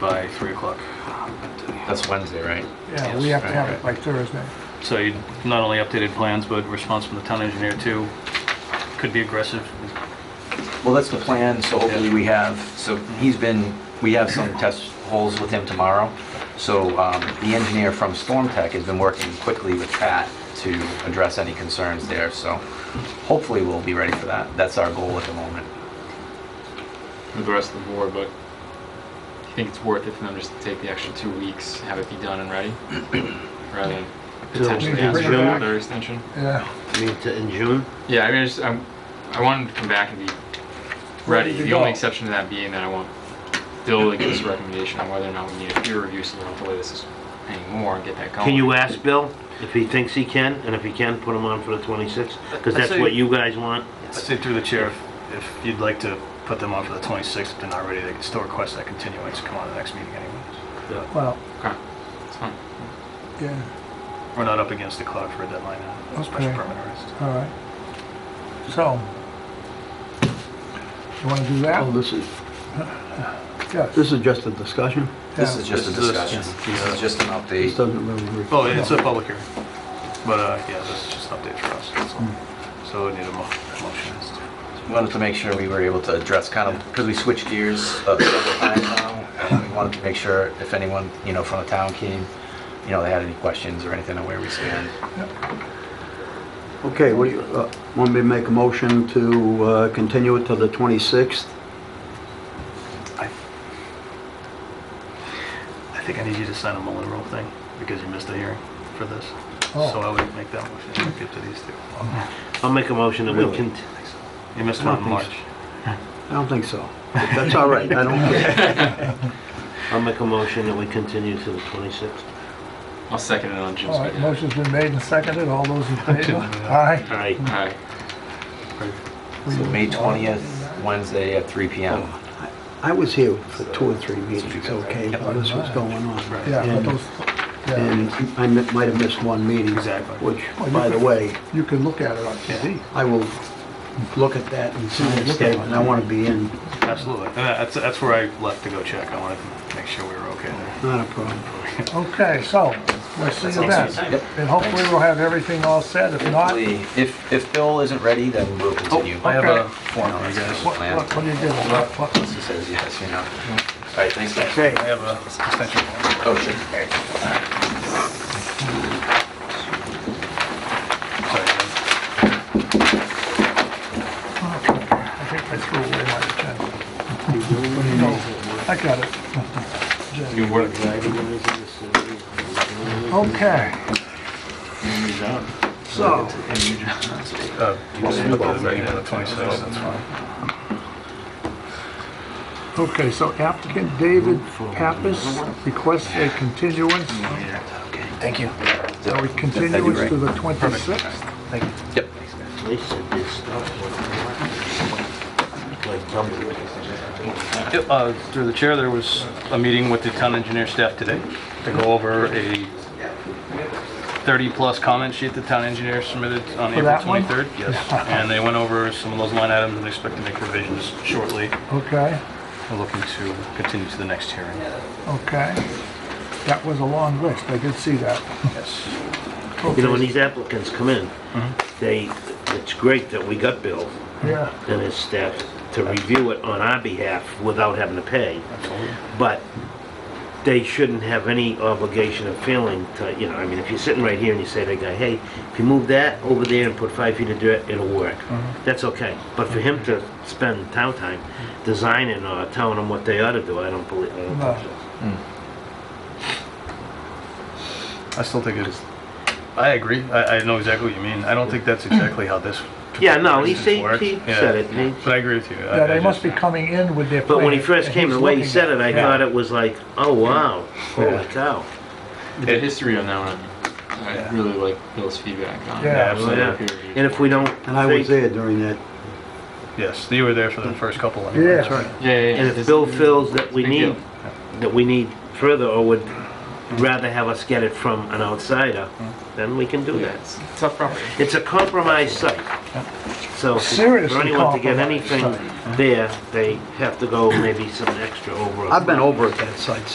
by 3 o'clock. That's Wednesday, right? Yeah, we have to have it by Thursday. So you not only updated plans, but response from the town engineer too. Could be aggressive. Well, that's the plan, so hopefully we have, so he's been, we have some test holes with him tomorrow. So um, the engineer from Storm Tech has been working quickly with Pat to address any concerns there, so hopefully we'll be ready for that. That's our goal at the moment. with the rest of the board, but do you think it's worth it for them just to take the extra two weeks, have it be done and ready? Rather than potentially Maybe ask bring for it a back. further extension? Yeah, Meet to- in June? Yeah, I mean, I just, I'm, I want them to come back and be ready. Ready to The only go. exception to that being that I want Bill to give us a recommendation on whether or not we need a peer review so we don't delay this anymore and get that going. Can you ask Bill if he thinks he can, and if he can, put him on for the 26th? Because that's what you guys want. I'd say through the chair, if- if you'd like to put them on for the 26th, if they're not ready, they can still request that continuance, come on to the next meeting anyways. well, Okay, that's fine. yeah, We're not up against the clock for a deadline now, special Okay. permit arrest. all right. So, you want to do that? Oh, this is, Yes. this is just a discussion? This is just a This is- discussion. This is just an This update. doesn't really work. Oh, it's a public hearing. But uh, yeah, this is just an update for us, that's all. So we need a mo- motion. Wanted to make sure we were able to address kind of, because we switched gears uh, several times now. and We wanted to make sure if anyone, you know, from the town came, you know, they had any questions or anything on where we stand. Okay, what do you, uh, want me to make a motion to uh, continue it to the 26th? I think I need you to sign a Mullen Rule thing, because you missed the hearing for this. Oh. So I would make that motion, if you get to these two. I'll make a motion that we Really? can, You missed I don't one in think March. I don't think so. But That's all right, I don't care. I'll make a motion that we continue to the 26th. I'll second it on Jim's All right, behalf. motion's been made and seconded, all those in favor? Aye. All right, All right, So May 20th, Wednesday at 3 PM. I was here for two or three meetings, okay, while this was going on. Yeah, but And- those, yeah, And I mi- might have missed one meeting. Exactly. Which, Well, Oh, you by the could- way, you can look at it on TV. I will look at that and sign a Look at it. statement. I want to be in, Absolutely. And that's, that's where I left to go check. I wanted to make sure we were okay there. not a problem. Okay, so, we'll see you then. Yep. And hopefully we'll have everything all set, if not, what, Hopefully, if, if Bill isn't ready, then we'll continue. Oh, I have Okay. a form for you guys. what what do you do? What- what- He says yes, you know. All right, thanks, guys. Okay, I have a extension form. Oh, sure. Sorry, guys. I think I threw away my agenda. No, I got it. new board Okay, so, Uh, you just put that back in the 26th, that's fine. okay, so applicant David Pappas requests a continuance. Thank you. Are we continuance to the 26th? Yep. they said this stuff. was Like double. Uh, through the chair, there was a meeting with the town engineer staff today to go over a 30-plus comment sheet the town engineer submitted on April that one? 23rd. Yes. And they went over some of those line items and expect to make revisions shortly. Okay, We're looking to continue to the next hearing. okay. That was a long list, I did see that. Yes. You know, when Okay, these applicants come in, they, it's great that we got Bill Yeah, and his staff to review it on our behalf without having to pay. But they shouldn't have any obligation or feeling to, you know, I mean, if you're sitting right here and you say to a guy, hey, if you move that over there and put five feet of dirt, it'll work. That's okay. But for him to spend town time designing or telling them what they ought to do, I don't believe, I don't No. think so. I still think it is. I agree. I, I know exactly what you mean. I don't think that's exactly how this. Yeah, no, he said, works. he Yeah. said it. He- But I agree with you. I- yeah, I they must just- be coming in with their plan. Uh, But when he first came, the way he said it, I thought got it was like, oh, wow, holy cow. The history on that one, I really like Bill's feedback on. Yeah, absolutely. Peer review. And if we don't, And I think- was there during that Yes, you were there for the first couple. anyway. Yeah. That's right. Yeah, yeah, yeah. and This- if Bill feels that we Big deal. need, that we need further, or would rather have us get it from an outsider, then we can do Yeah, that. it's a tough property. It's a compromised site. So Seriously for anyone to get compromised anything there, they have to go maybe some extra over. a- I've been over at that site